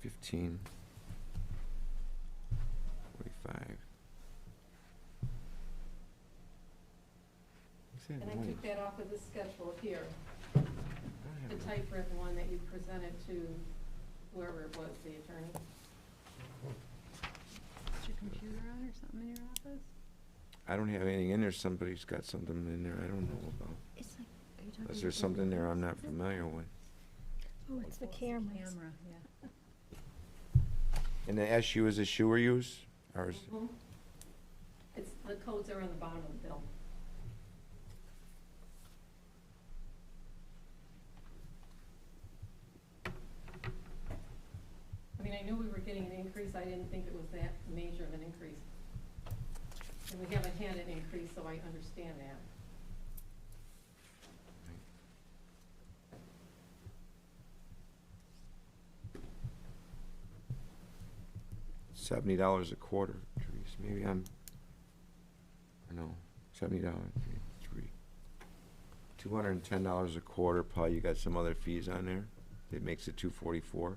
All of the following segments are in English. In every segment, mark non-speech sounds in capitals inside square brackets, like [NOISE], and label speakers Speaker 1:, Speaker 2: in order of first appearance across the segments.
Speaker 1: fifteen, forty-five. What's that
Speaker 2: And I
Speaker 1: noise?
Speaker 2: took that off of the schedule here,
Speaker 1: I don't have
Speaker 2: the
Speaker 1: it.
Speaker 2: typewritten one that you presented to whoever it was, the attorney.
Speaker 3: Is your computer on or something in your office?
Speaker 1: I don't have anything in there, somebody's got something in there I don't know about,
Speaker 3: It's like, are you talking?
Speaker 1: unless there's something there I'm not familiar with.
Speaker 3: Oh, it's the cameras.
Speaker 4: Camera, yeah.
Speaker 1: And the SU is a shoe or use, or is,
Speaker 2: Mhm. It's, the codes are on the bottom of the bill. I mean, I knew we were getting an increase, I didn't think it was that major of an increase. And we haven't had an increase, so I understand that.
Speaker 1: seventy dollars a quarter, Therese, maybe I'm, I know, seventy dollars, three. Two hundred and ten dollars a quarter, probably you got some other fees on there, that makes it two forty-four.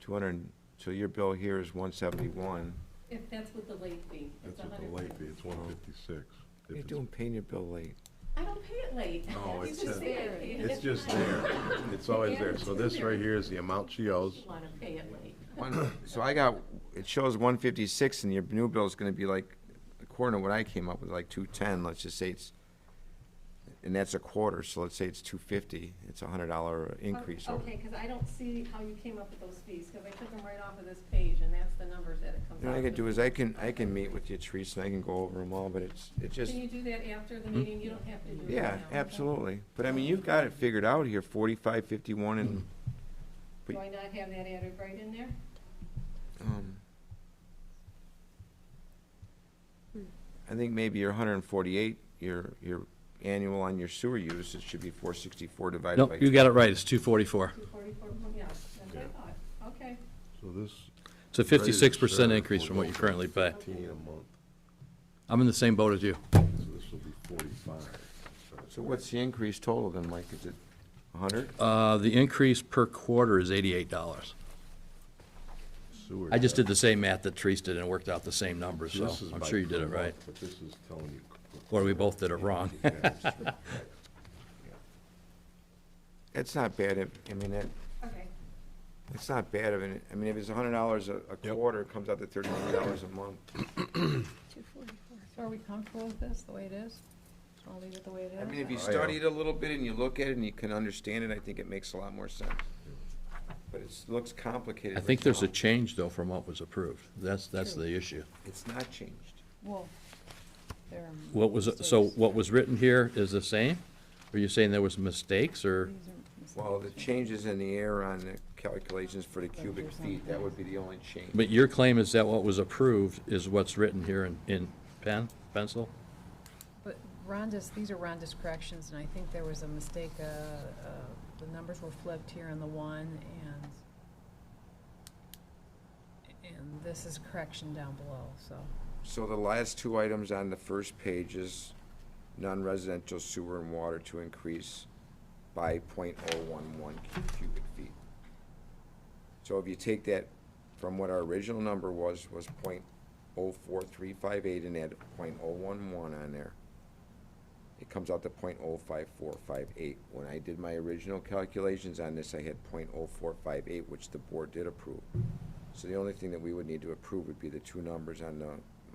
Speaker 1: Two hundred, so your bill here is one seventy-one.
Speaker 2: If that's with the late fee, it's
Speaker 5: That's
Speaker 2: a
Speaker 5: what
Speaker 2: hundred.
Speaker 5: the late fee, it's one fifty-six.
Speaker 1: You're doing paying your bill late.
Speaker 2: I don't pay it late. [LAUGHS]
Speaker 5: No,
Speaker 2: You
Speaker 5: it's
Speaker 2: just
Speaker 5: a-
Speaker 2: say I paid it. [LAUGHS]
Speaker 5: It's just there, it's always there, so this right here is the amount she owes.
Speaker 2: You wanna pay it late.
Speaker 1: One- So I got, it shows one fifty-six and your new bill's gonna be like, according to what I came up with, like two ten, let's just say it's, and that's a quarter, so let's say it's two fifty, it's a hundred dollar increase over.
Speaker 2: Okay, because I don't see how you came up with those fees, because I took them right off of this page, and that's the numbers that it comes
Speaker 1: You know,
Speaker 2: out
Speaker 1: What I can
Speaker 2: to.
Speaker 1: do is I can, I can meet with you, Teresa, and I can go over them all, but it's, it just, Hmm?
Speaker 2: Can you do that after the meeting? You don't have to do it right now.
Speaker 1: yeah, absolutely. But I mean, you've got it figured out here, forty-five, fifty-one, and,
Speaker 2: Do I not have that added right in there?
Speaker 1: um, I think maybe your hundred and forty-eight, your, your annual on your sewer use, it should be four sixty-four divided by.
Speaker 6: Nope, you got it right, it's 244.
Speaker 2: Two forty-four, oh, yeah, that's what I thought. Okay,
Speaker 5: So this
Speaker 6: It's a 56% increase from what you currently pay.
Speaker 5: fifteen a month,
Speaker 6: I'm in the same boat as you.
Speaker 5: so this will be forty-five.
Speaker 1: So what's the increase total then, Mike? Is it a hundred?
Speaker 6: Uh, The increase per quarter is $88.
Speaker 5: Sewer
Speaker 6: I just
Speaker 5: tax.
Speaker 6: did the same math that Therese did and worked out the same numbers, so
Speaker 5: This is
Speaker 6: I'm
Speaker 5: by
Speaker 6: sure you did
Speaker 5: per
Speaker 6: it
Speaker 5: month,
Speaker 6: right.
Speaker 5: But this is telling you.
Speaker 6: Or we both did
Speaker 5: [LAUGHS]
Speaker 6: it wrong.
Speaker 1: That's not bad, if- I mean, that,
Speaker 2: okay.
Speaker 1: that's not bad of an, I mean, if it's a hundred dollars a a quarter, it comes out to thirty-three dollars a month.
Speaker 3: Two forty-four.
Speaker 4: So are we comfortable with this, the way it is? I'll leave it the way it is.
Speaker 1: I mean, if you
Speaker 5: Oh, yeah.
Speaker 1: study it a little bit and you look at it and you can understand it, I think it makes a lot more sense. But it looks complicated.
Speaker 6: I think there's a
Speaker 1: right now.
Speaker 6: change, though, from what was approved. That's, that's the issue.
Speaker 1: It's not changed.
Speaker 4: Well, there are.
Speaker 6: What was, so
Speaker 4: mistakes.
Speaker 6: what was written here is the same? Are you saying there was mistakes, or?
Speaker 4: These are mistakes.
Speaker 1: Well, the changes in the air on the calculations for the cubic feet, that would be the only change.
Speaker 6: But your claim is that what was approved is what's written here in, in pen, pencil?
Speaker 4: But Rhonda's, these are Rhonda's corrections, and I think there was a mistake, uh, uh, the numbers were flipped here on the one, and, and this is correction down below, so.
Speaker 1: So the last two items on the first page is non-residential sewer and water to increase by point oh one one cubic feet. So if you take that from what our original number was, was point oh four three five eight and add point oh one one on there, it comes out to point oh five four five eight. When I did my original calculations on this, I had point oh four five eight, which the board did approve. So the only thing that we would need to approve would be the two numbers on the,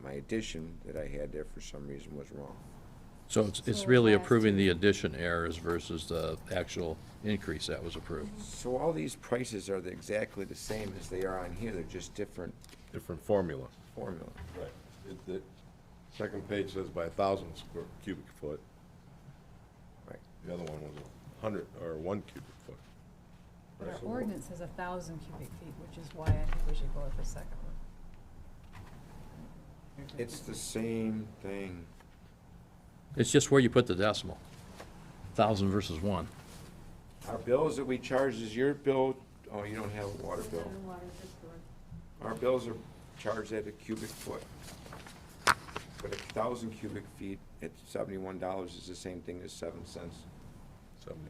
Speaker 1: my addition that I had there for some reason was wrong.
Speaker 6: So it's, it's
Speaker 4: So
Speaker 6: really
Speaker 4: last
Speaker 6: approving the addition errors versus the actual increase that was approved.
Speaker 1: So all these prices are the- exactly the same as they are on here, they're just different
Speaker 5: Different formula.
Speaker 1: formula.
Speaker 5: Right. It- the Second page says by a thousand square cubic foot,
Speaker 1: Right.
Speaker 5: the other one was a hundred, or one cubic foot.
Speaker 4: But our
Speaker 5: Right.
Speaker 4: ordinance has a thousand cubic feet, which is why I think we should go with the second one.
Speaker 1: It's the same thing.
Speaker 6: It's just where you put the decimal, thousand versus one.
Speaker 1: Our bills that we charge is your bill, oh, you don't have a water bill.
Speaker 2: Water, water, just for-
Speaker 1: Our bills are charged at a cubic foot. But a thousand cubic feet at seventy-one dollars is the same thing as seven cents.
Speaker 5: Seventy